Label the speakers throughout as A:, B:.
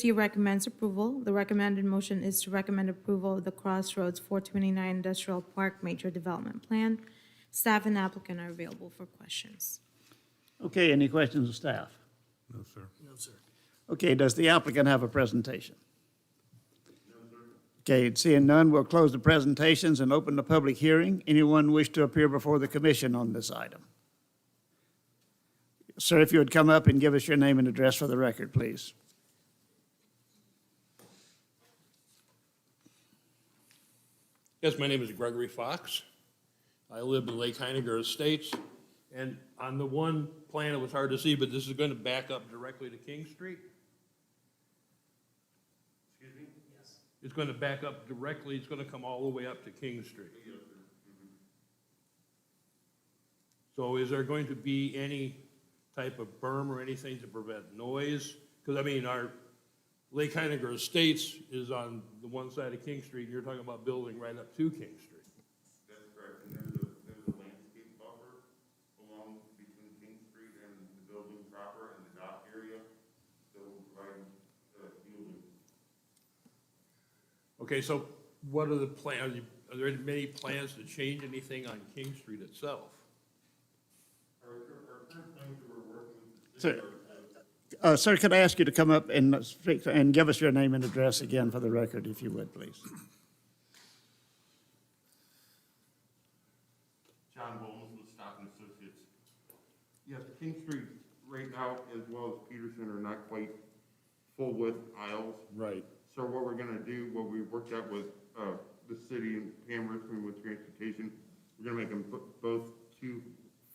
A: Trustee recommends approval. The recommended motion is to recommend approval of the Crossroads 429 Industrial Park Major Development Plan. Staff and applicant are available for questions.
B: Okay, any questions of staff?
C: No, sir.
B: Okay, does the applicant have a presentation? Okay, seeing none, we'll close the presentations and open the public hearing. Anyone wish to appear before the commission on this item? Sir, if you would come up and give us your name and address for the record, please.
D: Yes, my name is Gregory Fox. I live in Lake Heinegger Estates, and on the one plan, it was hard to see, but this is going to back up directly to King Street. Excuse me? Yes. It's going to back up directly, it's going to come all the way up to King Street. So is there going to be any type of berm or anything to prevent noise? Because, I mean, our Lake Heinegger Estates is on the one side of King Street, and you're talking about building right up to King Street.
C: That's correct, and there's a, there's a landscape buffer along between King Street and the building proper and the dock area that will provide, uh, shielding.
D: Okay, so what are the plans, are there many plans to change anything on King Street itself?
C: Our, cur- our current plans that we're working with the
B: Sir.
C: city are,
B: Uh, Sir, could I ask you to come up and speak, and give us your name and address again for the record, if you would, please?
C: John Bowles with Stockton Associates. Yes, King Street right now, as well as Peterson, are not quite full width aisles.
D: Right.
C: So what we're gonna do, what we worked out with, uh, the city and Pam Richmond with transportation, we're gonna make them bo- both two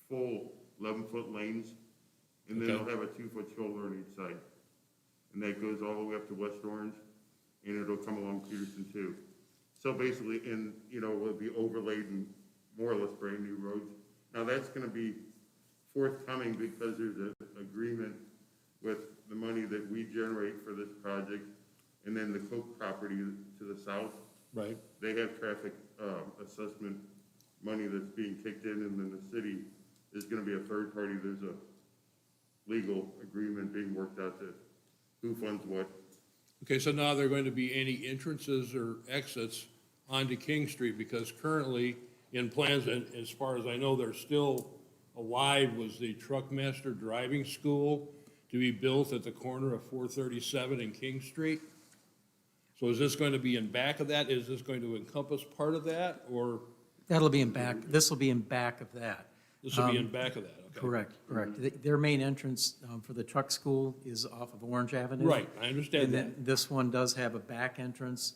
C: full eleven-foot lanes, and then they'll
D: Okay.
C: have a two-foot shoulder on each side. And that goes all the way up to West Orange, and it'll come along Peterson too. So basically, in, you know, it'll be overlaid and more or less brand-new roads. Now, that's gonna be forthcoming because there's an agreement with the money that we generate for this project, and then the Coke property to the south,
D: Right.
C: they have traffic, um, assessment money that's being kicked in, and then the city is gonna be a third party, there's a legal agreement being worked out to who funds what.
D: Okay, so now there are going to be any entrances or exits onto King Street? Because currently, in plans, and as far as I know, there's still alive was the Truckmaster Driving School to be built at the corner of 437 and King Street. So is this going to be in back of that? Is this going to encompass part of that, or
E: That'll be in back, this will be in back of that. Um,
D: this will be in back of that? Okay.
E: Correct, correct. Th- Their main entrance um, for the truck school is off of Orange Avenue.
D: Right, I understand
E: And
D: that.
E: then this one does have a back entrance.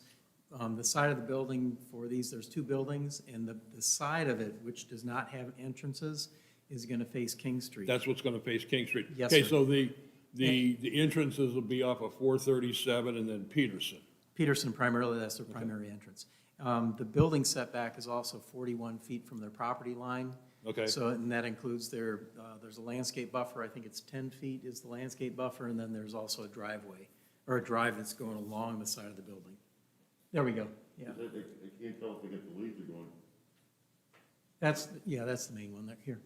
E: On the side of the building for these, there's two buildings, and the, the side of it, which does not have entrances, is going to face King Street.
D: That's what's going to face King Street.
E: Yes,
D: Okay,
E: sir.
D: so the, the, the entrances will be off of 437 and then Peterson.
E: Peterson primarily, that's their primary entrance. Um, The building setback is also 41 feet from their property line.
D: Okay.
E: So, and that includes their, uh, there's a landscape buffer, I think it's 10 feet is the landscape buffer, and then there's also a driveway, or a drive that's going along the side of the building. There we go, yeah.
C: I, I- I can't tell if they get the leads are going,
E: That's, yeah, that's the main one, there, here.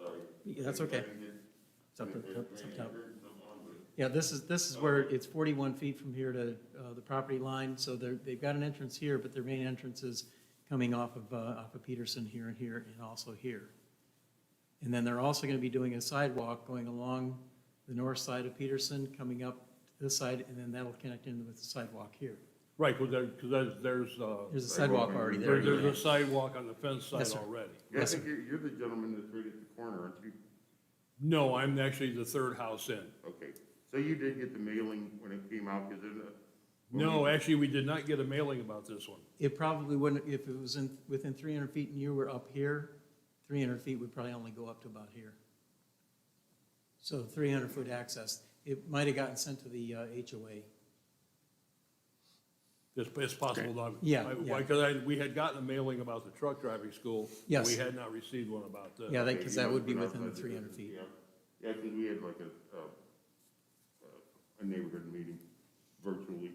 C: sorry.
E: Yeah, that's okay. It's up,
C: If- if-
E: to- up- it's up top.
C: if I'm on with it.
E: Yeah, this is, this is where it's 41 feet from here to uh, the property line, so they're, they've got an entrance here, but their main entrance is coming off of, uh, off of Peterson here and here and also here. And then they're also going to be doing a sidewalk going along the north side of Peterson, coming up this side, and then that'll connect in with the sidewalk here.
D: Right, because there, because there's, there's, uh,
E: There's a sidewalk already there.
D: there- there's a sidewalk on the fence side
E: Yes, sir.
D: already.
C: Yeah, I
E: Yes, sir.
C: think you're, you're the gentleman that's right at the corner, aren't you?
D: No, I'm actually the third house in.
C: Okay, so you did get the mailing when it came out, because it, uh, when
D: No,
C: we-
D: actually, we did not get a mailing about this one.
E: It probably wouldn't, if it was in, within 300 feet and you were up here, 300 feet would probably only go up to about here. So 300-foot access, it might have gotten sent to the uh, HOA.
D: It's, it's possible, not.
E: Yeah,
D: I-
E: yeah.
D: Why, because I, we had gotten a mailing about the truck driving school.
E: Yes.
D: We had not received one about this.
E: Yeah,
C: Okay,
E: because
C: you
E: that
C: must
E: would
C: have
E: be
C: been
E: within the
C: outside the
E: 300 feet.
C: Yeah, yeah, because we had like a, uh, uh, a neighborhood meeting virtually.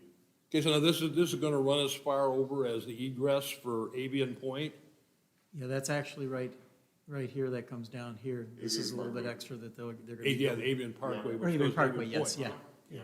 D: Okay, so now this is, this is going to run as far over as the egress for Avian Point.
E: Yeah, that's actually right, right here that comes down here. This
C: Avian
E: is a little bit
C: Parkway.
E: extra that they're, they're
D: Yeah,
E: going
D: the
E: to.
D: Avian Parkway.
E: Or
D: which goes
E: even
D: to Avian
E: Parkway, yes,
D: Point.
E: yeah.
C: Yeah.